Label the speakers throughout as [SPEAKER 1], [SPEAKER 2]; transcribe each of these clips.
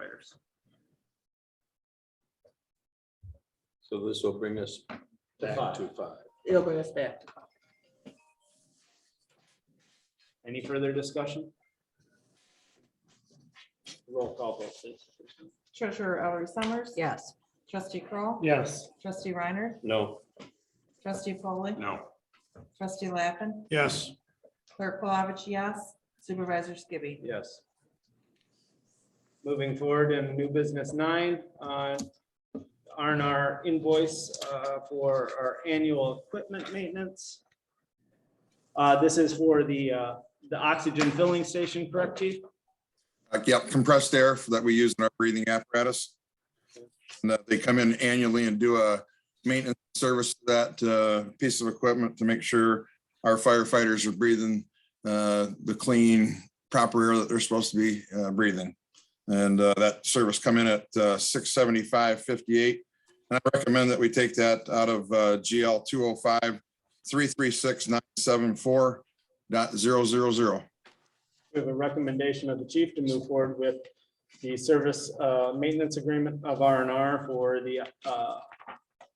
[SPEAKER 1] years.
[SPEAKER 2] So this will bring us back
[SPEAKER 1] five.
[SPEAKER 2] to five.
[SPEAKER 3] It'll bring us back. to five.
[SPEAKER 1] Any further discussion? Roll call vote, please.
[SPEAKER 4] Treasurer Ellery Summers.
[SPEAKER 3] Yes,
[SPEAKER 4] Trustee Kroll,
[SPEAKER 1] Yes.
[SPEAKER 4] Trustee Reiner.
[SPEAKER 2] No.
[SPEAKER 4] Trustee Foley,
[SPEAKER 2] No.
[SPEAKER 4] Trustee Lappin.
[SPEAKER 5] yes,
[SPEAKER 4] Clerk Palovich, yes. Supervisor Skibby.
[SPEAKER 1] Yes. Moving forward in new business nine, uh, R and R invoice uh, for our annual equipment maintenance. Uh, This is for the, uh, the oxygen filling station, correct, chief?
[SPEAKER 6] Uh, Yep, compressed air f- that we use in our breathing apparatus. And that they come in annually and do a maintenance service to that uh, piece of equipment to make sure our firefighters are breathing uh, the clean, proper air that they're supposed to be uh, breathing. And uh, that service come in at uh, six seventy-five fifty-eight. And I recommend that we take that out of uh, GL two oh five three three six nine seven four dot zero zero zero.
[SPEAKER 1] We have a recommendation of the chief to move forward with the service uh, maintenance agreement of R and R for the uh,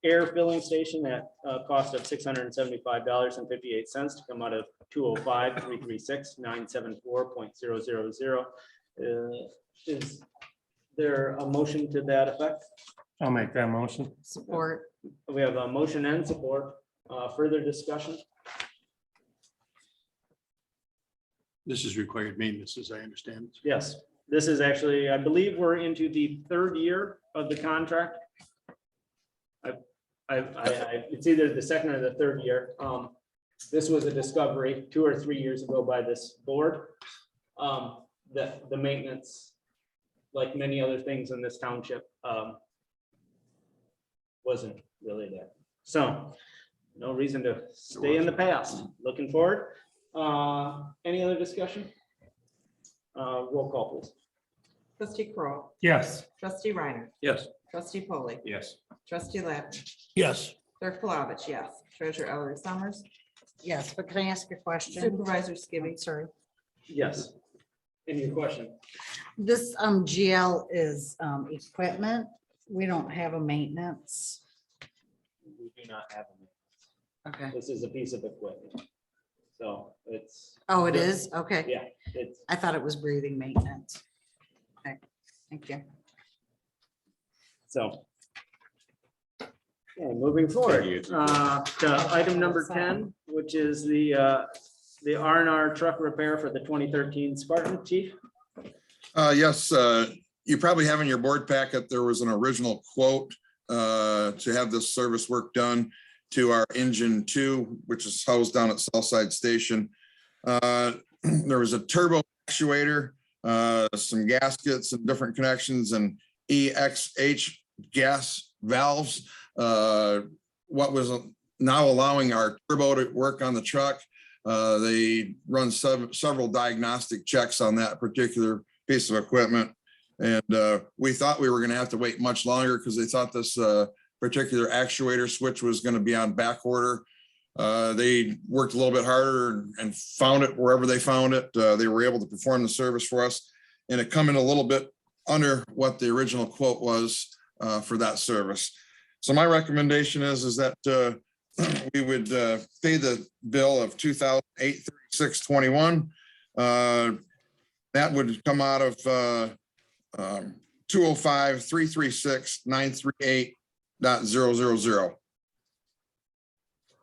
[SPEAKER 1] air filling station at a cost of six hundred and seventy-five dollars and fifty-eight cents to come out of two oh five, three three six, nine seven four point zero zero zero. Uh, Is there a motion to that effect?
[SPEAKER 7] I'll make that motion.
[SPEAKER 3] support.
[SPEAKER 1] We have a motion and support. Uh, Further discussion?
[SPEAKER 5] this is required maintenance, as I understand.
[SPEAKER 1] Yes, this is actually, I believe we're into the third year of the contract. I, I, I, I- it's either the second or the third year. Um, this was a discovery two or three years ago by this board. Um, the, the maintenance, like many other things in this township, um, wasn't really there. So no reason to stay in the past. Looking forward. Uh, any other discussion? Uh, roll call please.
[SPEAKER 4] Trustee Kroll,
[SPEAKER 7] Yes.
[SPEAKER 4] Trustee Reiner.
[SPEAKER 2] Yes.
[SPEAKER 4] Trustee Foley,
[SPEAKER 2] Yes.
[SPEAKER 4] Trustee Lappin.
[SPEAKER 5] Yes,
[SPEAKER 4] Clerk Palovich, yes. Treasurer Ellery Summers.
[SPEAKER 3] Yes, but can I ask a question?
[SPEAKER 4] Supervisor
[SPEAKER 3] I'm
[SPEAKER 4] Skibby.
[SPEAKER 3] Sorry.
[SPEAKER 1] Yes. Any question?
[SPEAKER 3] This um GL is um equipment. We don't have a maintenance.
[SPEAKER 1] We do not have them.
[SPEAKER 3] Okay.
[SPEAKER 1] This is a piece of equipment. So it's,
[SPEAKER 3] Oh, it is? Okay.
[SPEAKER 1] yeah, it's,
[SPEAKER 3] I thought it was breathing maintenance. Okay, thank you.
[SPEAKER 1] so. Okay, moving forward, uh, to item number ten, which is the, uh, the R and R truck repair for the twenty thirteen Spartan Chief.
[SPEAKER 6] Uh, yes, uh, you probably have in your board packet, there was an original quote uh, to have this service work done to our engine two, which is housed down at Southside Station. Uh, There was a turbo actuator, uh, some gaskets and different connections and EXH gas valves. Uh, What was now allowing our turbo to work on the truck. Uh, They run sev- several diagnostic checks on that particular piece of equipment. And uh, we thought we were going to have to wait much longer because they thought this uh, particular actuator switch was going to be on back order. Uh, They worked a little bit harder and found it wherever they found it. Uh, They were able to perform the service for us. And it come in a little bit under what the original quote was uh, for that service. So my recommendation is, is that uh, we would uh, pay the bill of two thousand eight thirty-six twenty-one. uh, That would come out of uh, um, 205 336 938 dot zero zero zero.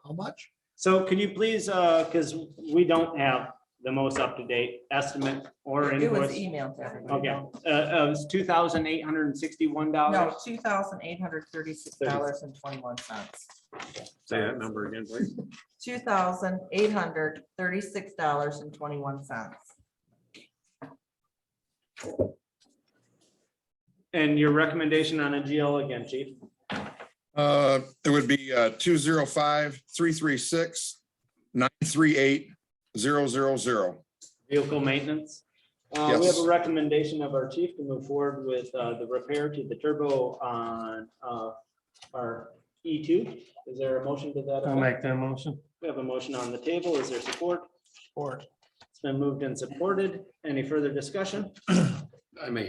[SPEAKER 5] how much?
[SPEAKER 1] So can you please, uh, because we don't have the most up-to-date estimate or
[SPEAKER 3] e-
[SPEAKER 4] It was
[SPEAKER 1] invoice.
[SPEAKER 4] emailed to everybody.
[SPEAKER 1] Okay, uh, uh, it's two thousand eight hundred and sixty-one dollars.
[SPEAKER 4] No, two thousand eight hundred thirty-six dollars and twenty-one cents.
[SPEAKER 2] Say that number again, please.
[SPEAKER 4] Two thousand eight hundred thirty-six dollars and twenty-one cents.
[SPEAKER 1] And your recommendation on a GL again, chief?
[SPEAKER 6] Uh, it would be uh, 205 336 938 zero zero zero.
[SPEAKER 1] Vehicle maintenance. Uh, we have a
[SPEAKER 6] Yes.
[SPEAKER 1] recommendation of our chief to move forward with, uh, the repair to the turbo on, uh, our E two. Is there a motion to that?
[SPEAKER 7] I'll make
[SPEAKER 1] effect?
[SPEAKER 7] that motion.
[SPEAKER 1] We have a motion on the table. Is there support? Support. It's been moved and supported. Any further discussion?
[SPEAKER 2] I may